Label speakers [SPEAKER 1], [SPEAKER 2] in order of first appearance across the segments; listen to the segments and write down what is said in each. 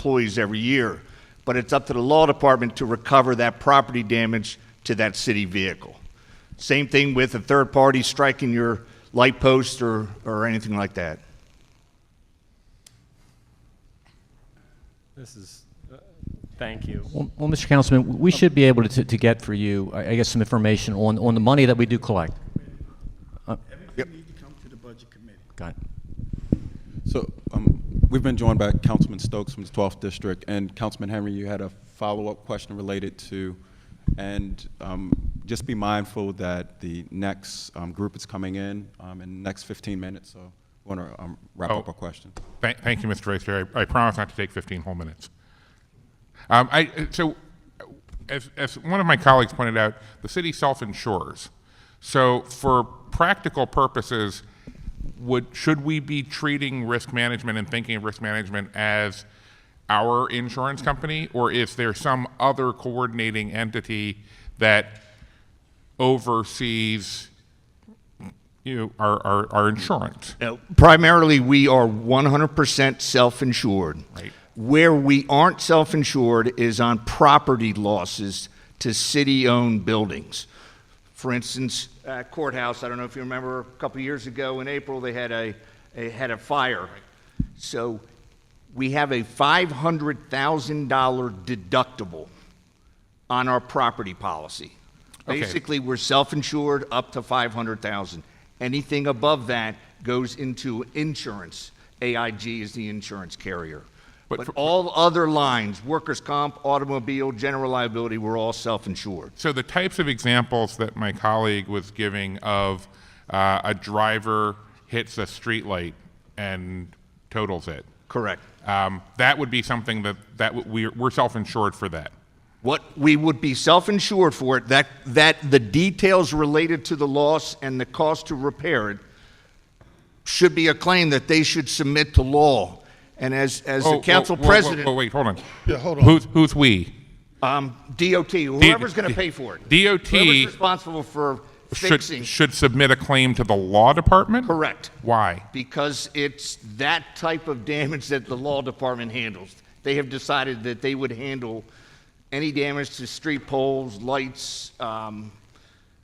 [SPEAKER 1] employees every year, but it's up to the law department to recover that property damage to that city vehicle. Same thing with a third party striking your light post or, or anything like that.
[SPEAKER 2] This is, uh, thank you.
[SPEAKER 3] Well, well, Mr. Councilman, we should be able to, to get for you, I I guess, some information on, on the money that we do collect.
[SPEAKER 1] Yep.
[SPEAKER 4] Everything need to come to the budget committee.
[SPEAKER 3] Got it.
[SPEAKER 5] So um, we've been joined by Councilman Stokes from the 12th District, and Councilman Henry, you had a follow-up question related to, and um, just be mindful that the next um, group is coming in um, in the next 15 minutes, so we want to wrap up
[SPEAKER 6] Oh.
[SPEAKER 5] our question.
[SPEAKER 6] Thank, thank you, Mr. Vice Chair. I, I promise not to take 15 whole minutes. Um, I, so, uh, as, as one of my colleagues pointed out, the city self-insures. So, for practical purposes, would should we be treating risk management and thinking of risk management as our insurance company, or is there some other coordinating entity that oversees you know, our, our, our insurance?
[SPEAKER 1] Now, primarily, we are 100% self insured.
[SPEAKER 6] Right.
[SPEAKER 1] Where we aren't self insured is on property losses to city owned buildings. For instance, uh, courthouse, I don't know if you remember, a couple years ago in April, they had a, a, had a fire. So we have a $500,000 deductible on our property policy.
[SPEAKER 6] Okay.
[SPEAKER 1] Basically, we're self-insured up to 500,000. Anything above that goes into insurance. AIG is the insurance carrier.
[SPEAKER 6] But
[SPEAKER 1] But
[SPEAKER 6] for-
[SPEAKER 1] all other lines, workers' comp, automobile, general liability, we're all self-insured.
[SPEAKER 6] So the types of examples that my colleague was giving of uh, a driver hits a streetlight and totals it,
[SPEAKER 1] Correct.
[SPEAKER 6] um, that would be something that, that w- we're, we're self-insured for that.
[SPEAKER 1] What we would be self-insured for, it that, that the details related to the loss and the cost to repair it should be a claim that they should submit to law. And as, as
[SPEAKER 6] Oh,
[SPEAKER 1] the
[SPEAKER 6] whoa,
[SPEAKER 1] council
[SPEAKER 6] whoa, whoa,
[SPEAKER 1] president.
[SPEAKER 6] whoa, wait, hold on.
[SPEAKER 4] Yeah, hold on.
[SPEAKER 6] Who's, who's we?
[SPEAKER 1] Um, DOT, whoever's going to pay for it.
[SPEAKER 6] DOT
[SPEAKER 1] Whoever's responsible for
[SPEAKER 6] Should,
[SPEAKER 1] fixing,
[SPEAKER 6] should submit a claim to the law department?
[SPEAKER 1] correct,
[SPEAKER 6] Why?
[SPEAKER 1] because it's that type of damage that the law department handles. They have decided that they would handle any damage to street poles, lights, um,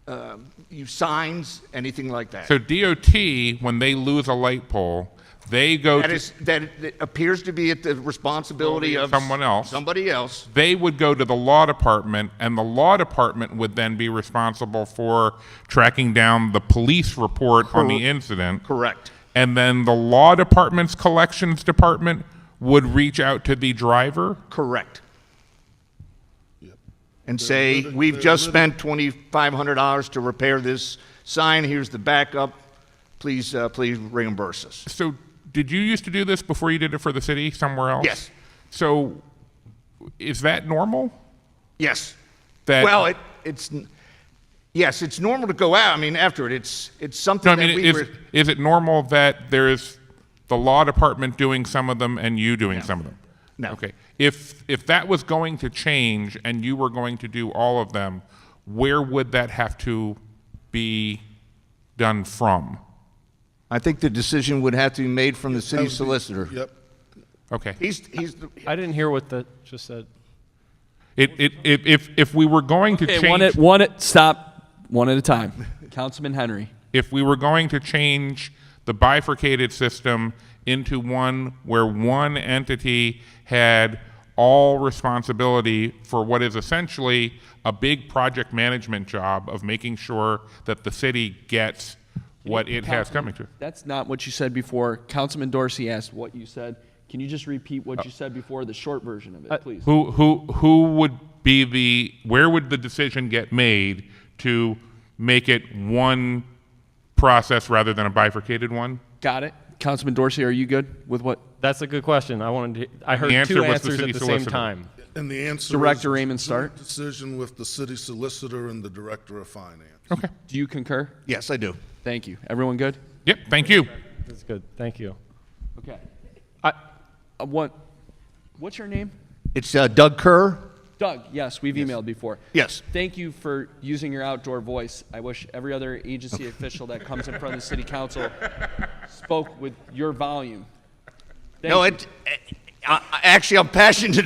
[SPEAKER 1] uh, you- signs, anything like that.
[SPEAKER 6] So DOT, when they lose a light pole, they go
[SPEAKER 1] That
[SPEAKER 6] to,
[SPEAKER 1] is, that that appears to be at the responsibility of.
[SPEAKER 6] Someone else.
[SPEAKER 1] Somebody else.
[SPEAKER 6] they would go to the law department, and the law department would then be responsible for tracking down the police report on the incident.
[SPEAKER 1] Correct.
[SPEAKER 6] And then the law department's collections department would reach out to the driver.
[SPEAKER 1] Correct. And say, we've just spent twenty-five hundred dollars to repair this sign, here's the backup, please, uh, please reimburse us.
[SPEAKER 6] So, did you used to do this before you did it for the city somewhere else?
[SPEAKER 1] Yes.
[SPEAKER 6] So, is that normal?
[SPEAKER 1] Yes.
[SPEAKER 6] That-
[SPEAKER 1] Well, it, it's, n- yes, it's normal to go out, I mean, after it, it's, it's
[SPEAKER 6] No, I
[SPEAKER 1] something that
[SPEAKER 6] mean,
[SPEAKER 1] we
[SPEAKER 6] is,
[SPEAKER 1] were,
[SPEAKER 6] is it normal that there is the law department doing some of them and you doing some of them?
[SPEAKER 1] No.
[SPEAKER 6] Okay. If if that was going to change and you were going to do all of them, where would that have to be done from?
[SPEAKER 1] I think the decision would have to be made from the city solicitor.
[SPEAKER 4] Yep.
[SPEAKER 6] Okay.
[SPEAKER 1] He's, he's, the-
[SPEAKER 2] I didn't hear what the, just said.
[SPEAKER 6] It, it, if, if, if we were going to
[SPEAKER 7] Okay,
[SPEAKER 6] change
[SPEAKER 7] one at one at stop, one at a time. Councilman Henry.
[SPEAKER 6] if we were going to change the bifurcated system into one where one entity had all responsibility for what is essentially a big project management job of making sure that the city gets what it has coming to.
[SPEAKER 7] That's not what you said before. Councilman Dorsey asked what you said. Can you just repeat what you said before, the short version of it, please?
[SPEAKER 6] Who, who, who would be the, where would the decision get made to make it one process rather than a bifurcated one?
[SPEAKER 7] Got it? Councilman Dorsey, are you good with what?
[SPEAKER 2] That's a good question. I wanted to, I heard
[SPEAKER 6] The answer
[SPEAKER 2] two
[SPEAKER 6] was the
[SPEAKER 2] answers
[SPEAKER 6] city
[SPEAKER 2] at the same
[SPEAKER 6] solicitor.
[SPEAKER 2] time.
[SPEAKER 4] And the answer is.
[SPEAKER 7] Director Raymond Stark.
[SPEAKER 4] joint Decision with the city solicitor and the director of finance.
[SPEAKER 6] Okay.
[SPEAKER 7] Do you concur?
[SPEAKER 1] yes, I do.
[SPEAKER 7] Thank you. Everyone good?
[SPEAKER 6] Yep, thank you.
[SPEAKER 2] That's good. Thank you.
[SPEAKER 7] Okay.
[SPEAKER 2] I,
[SPEAKER 7] Uh, what? What's your name?
[SPEAKER 1] It's uh, Doug Kerr?
[SPEAKER 7] Doug. Yes, we've emailed before.
[SPEAKER 1] Yes.
[SPEAKER 7] Thank you for using your outdoor voice. I wish every other agency official that comes in front of the city council spoke with your volume. Thank
[SPEAKER 1] No,
[SPEAKER 7] you.
[SPEAKER 1] it, I, I, actually, I'm passionate